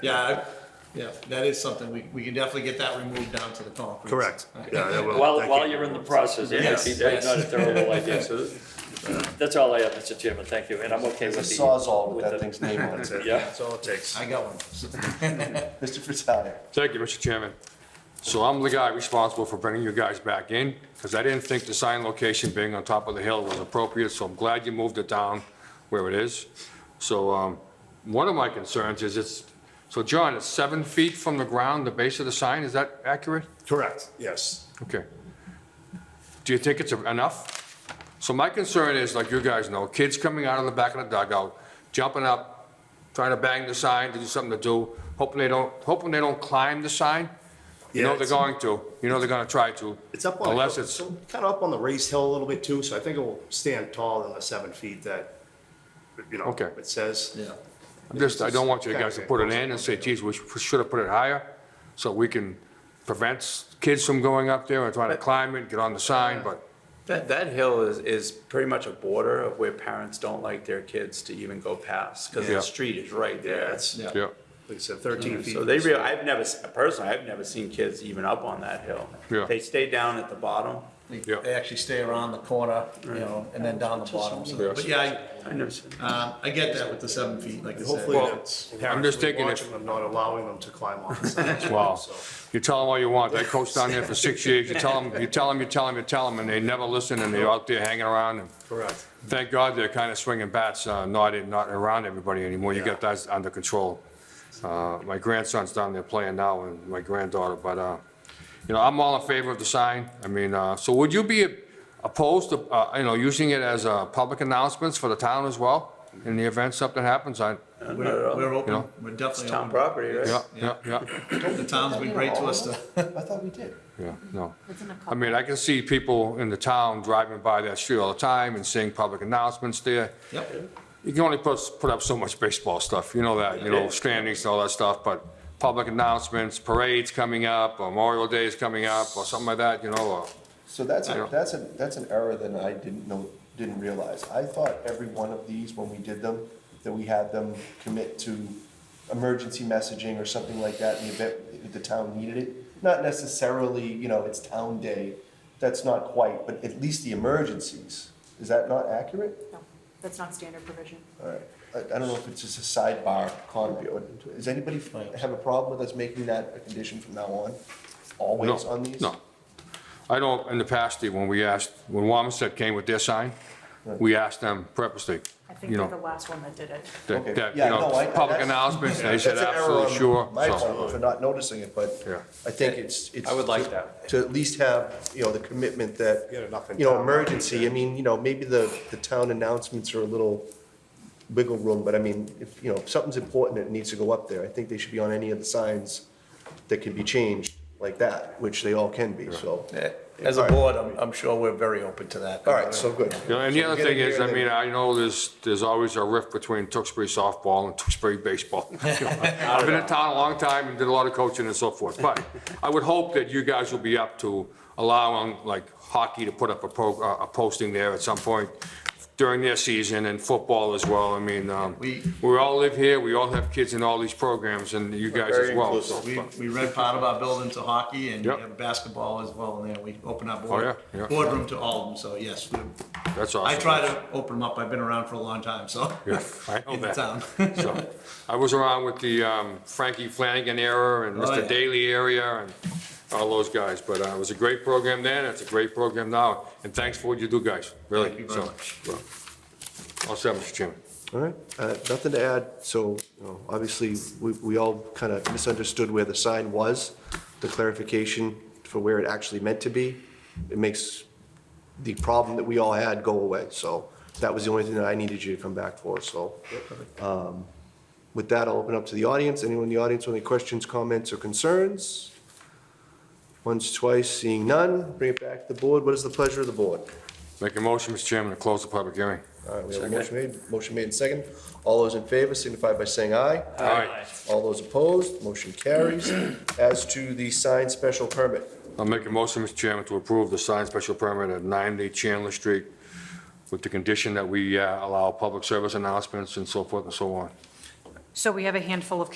Yeah, I- yeah, that is something, we, we can definitely get that removed down to the concrete. Correct. Yeah, that will- While, that while can- you're in the process, it might be Yes, not yes. a terrible idea, so that's all I have, Mr. Chairman, thank you, and I'm okay with It's the. a sawzall with the- that thing's name on That's it. it. Yeah. That's all it takes. I got one. Mr. Fratelli. Thank you, Mr. Chairman. So I'm the guy responsible for bringing you guys back in, because I didn't think the sign location being on top of the hill was appropriate, so I'm glad you moved it down where it is. So, um, one of my concerns is it's, so John, it's seven feet from the ground, the base of the sign, is that accurate? Correct, yes. Okay. Do you think it's enough? So my concern is, like you guys know, kids coming out of the back of the dugout, jumping up, trying to bang the sign, to do something to do, hoping they don't, hoping they don't climb the sign. You Yeah, know they're it's- going to, you know they're gonna try to. It's up on. the- Unless it's, Kind of up on the raised hill a little bit too, so I think it will stand taller than the seven feet that, you know, Okay. it says. Yeah, I'm just, I don't want you guys to put it in and say, geez, we should have put it higher, so we can prevent kids from going up there and trying to climb it, get on the sign, but That, that hill is, is pretty much a border of where parents don't like their kids to even go past, because Yeah. the street is right there. That's, yeah. like yeah, I said, thirteen feet. So they real, I've never, se- personally, I've never seen kids even up on that hill. Yeah. They stay down at the bottom. They Yeah. they actually stay around the corner, you know, and then down the bottom. so- But yeah, I never seen. I, um, I get that with the seven feet, like I said. Hopefully that's. I'm just parents thinking if- Watching them, not allowing them to climb on the signs. Wow. So, You tell them all you want. That coach down there for six years, you tell them, you tell them, you tell them, you tell them, and they never listen, and they're out there hanging around. And Correct. Thank God they're kind of swinging bats, uh, not, in- not around everybody anymore. You got that under control. Uh, My grandson's down there playing now, and my granddaughter, but, uh, you know, I'm all in favor of the sign. I mean, uh, so would you be opposed to, uh, you know, using it as uh, public announcements for the town as well? In the event something happens, I, We're, we're Yeah. open, we're It's definitely town open. property, yeah, right? yeah, yeah, The town's been great to us to, I thought we did. yeah, no. It's in a I mean, I can see people in the town driving by that street all the time and seeing public announcements there. yep. You can only put, put up so much baseball stuff, you know that, you know, standings and all that stuff, but public announcements, parades coming up, or Memorial Day is coming up, or something like that, you know, or, So that's, I a don't- that's, a that's an error that I didn't know, didn't realize. I thought every one of these, when we did them, that we had them commit to emergency messaging or something like that in the event the town needed it. Not necessarily, you know, it's town day, that's not quite, but at least the emergencies. Is that not accurate? No, that's not standard provision. All right, I, I don't know if it's just a sidebar comment, or, does anybody have a problem with us making that a condition from now on? no, Always on these? no. I don't, in the past, Steve, when we asked, when Wamisit came with their sign, we asked them purposely, I think you they're the know, last one that did it. that, Okay. that, you Yeah, no, I- know, public that's- announcements, they That's said an error absolutely on sure, My so, fault for not noticing it, but Yeah. I think it's, it's. I would like to- that. To at least have, you know, the commitment that, You got enough in you know, town. emergency, I mean, you know, maybe the, the town announcements are a little wiggle room, but I mean, if, you know, if something's important, it needs to go up there. I think they should be on any of the signs that can be changed like that, which they all can be, so. As a board, I'm, I'm sure we're very open to that. All right, so good. You know, and the So other get thing in is, here I and mean, then- I know there's, there's always a rift between Tewksbury softball and Tewksbury baseball. I've been in town a long time and did a lot of coaching and so forth, but I would hope that you guys will be up to allowing, like, hockey to put up a pro, uh, a posting there at some point during their season and football as well. I mean, um, We- we all live here, we all have kids in all these programs and you guys as well. so- We, we rent part of our building to hockey and we Yep. Oh, have basketball as well in there. We open our board, yeah, yeah. boardroom to all of them, so yes. we- That's I awesome. try to open them up. I've been around for a long time, so. Yeah, I know In the that. town. So, I was around with the um, Frankie Flanagan era and Oh, yeah. Mr. Daly area and all those guys, but uh, it was a great program then, it's a great program now, and thanks for what you do, guys, really. Thank you very So, much. well, All set, Mr. Chairman. All right, uh, nothing to add, so, you know, obviously, we, we all kind of misunderstood where the sign was, the clarification for where it actually meant to be, it makes the problem that we all had go away, so that was the only thing that I needed you to come back for, so. um, With that, I'll open up to the audience, anyone in the audience with any questions, comments, or concerns? Once, twice, seeing none, bring it back to the board, what is the pleasure of the board? Make a motion, Mr. Chairman, to close the public hearing. All right, we have a motion made, motion made and second. All those in favor signify by saying aye. All right, All those opposed, motion carries. As to the signed special permit, I'll make a motion, Mr. Chairman, to approve the signed special permit at 90 Chandler Street with the condition that we uh, allow public service announcements and so forth and so on. So we have a handful of